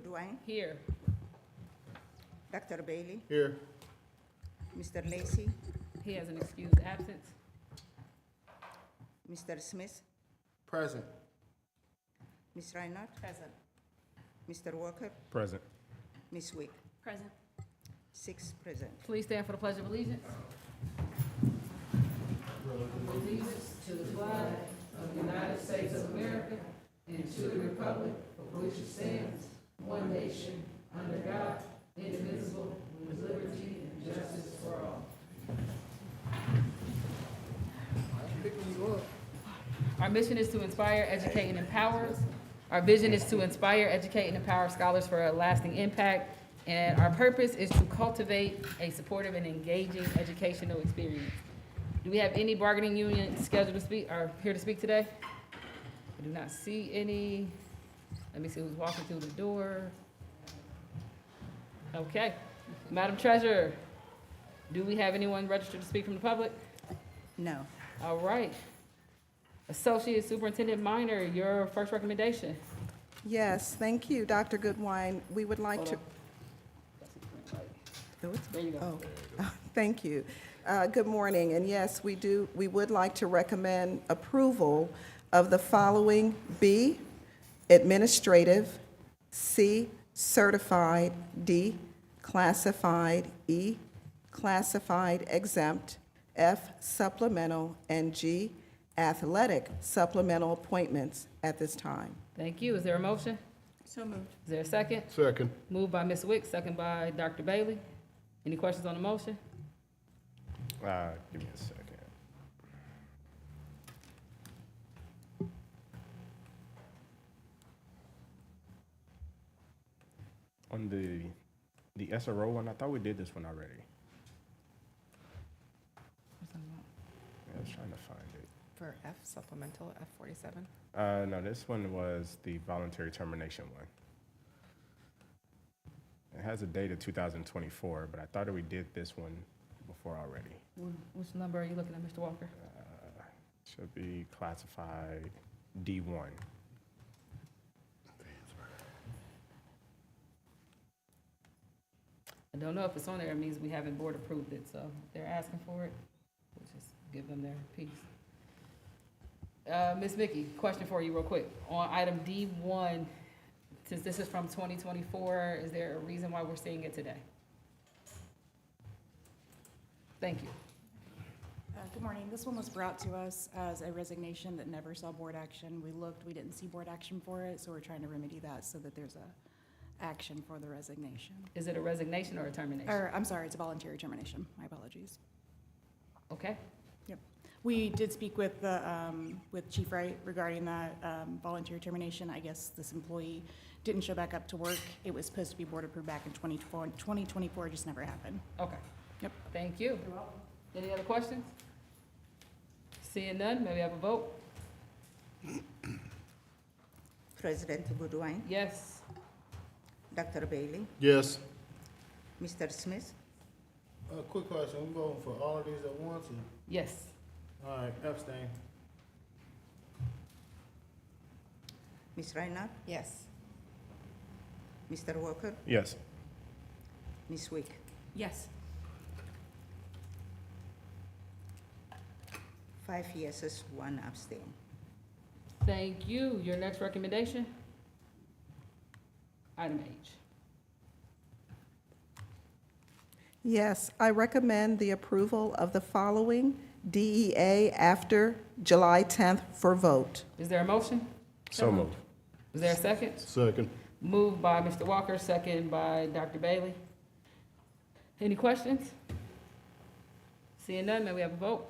Dwyer, Here. Dr. Bailey, Here. Mr. Lacy, He has an excused absence. Mr. Smith, Present. Ms. Reinhardt, Present. Mr. Walker, Present. Ms. Wick. Present. Six present. Please stand for the pledge of allegiance. Our mission is to inspire, educate, and empower. Our vision is to inspire, educate, and empower scholars for a lasting impact. And our purpose is to cultivate a supportive and engaging educational experience. Do we have any bargaining union scheduled to speak, or here to speak today? I do not see any. Let me see who's walking through the door. Okay. Madam Treasurer, do we have anyone registered to speak from the public? No. All right. Associate Superintendent Minor, your first recommendation. Yes, thank you, Dr. Goodwine. We would like to, There you go. oh, thank you. Uh, Good morning, and yes, we do, we would like to recommend approval of the following B, administrative, C, certified, D, classified, E, classified exempt, F, supplemental, and G, athletic supplemental appointments at this time. Thank you. Is there a motion? So moved. Is there a second? Second. Moved by Ms. Wick, second by Dr. Bailey. Any questions on the motion? Uh, give me a second. On the, the SRO one, I thought we did this one already. I was trying to find it. For F supplemental, F forty-seven? Uh, no, this one was the voluntary termination one. It has a date of 2024, but I thought that we did this one before already. Wh- Which number are you looking at, Mr. Walker? Uh, Should be classified D1. I don't know if it's on there. It means we haven't board approved it, so they're asking for it. We'll just give them their piece. Uh, Ms. Mickey, question for you real quick. On item D one, since this is from twenty twenty-four, is there a reason why we're seeing it today? Thank you. Uh, Good morning. This one was brought to us as a resignation that never saw board action. We looked, we didn't see board action for it, so we're trying to remedy that so that there's a action for the resignation. Is it a resignation or a termination? Or, I'm sorry, it's a voluntary termination. My apologies. Okay, We did speak with the, um, with Chief Wright regarding that, um, voluntary termination. I guess this employee didn't show back up to work. It was supposed to be board approved back in 2024, 2024, it just never happened. okay. Yep. Thank you. Any other questions? Seeing none, may we have a vote? President Goodwin, Yes. Dr. Bailey, Yes. Mr. Smith, A quick question, I'm voting for all of these at once, or? Yes. All right, abstain. Ms. Reinhardt, Yes. Mr. Walker, Yes. Ms. Wick. Yes. Five yeses, one abstain. Thank you. Your next recommendation? Item H. Yes, I recommend the approval of the following DEA after July 10th for vote. Is there a motion? So moved. Is there a second? Second. Moved by Mr. Walker, second by Dr. Bailey. Any questions? Seeing none, may we have a vote?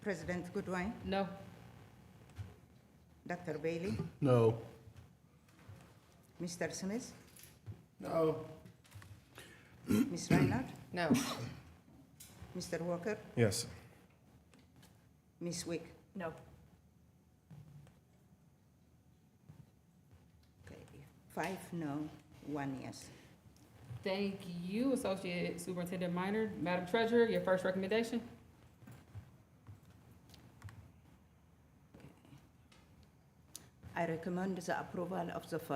President Goodwin, No. Dr. Bailey, No. Mr. Smith, No. Ms. Reinhardt, No. Mr. Walker, Yes. Ms. Wick. No. Okay, Five no, one yes. Thank you, Associate Superintendent Minor. Madam Treasurer, your first recommendation? I I recommend the approval of the following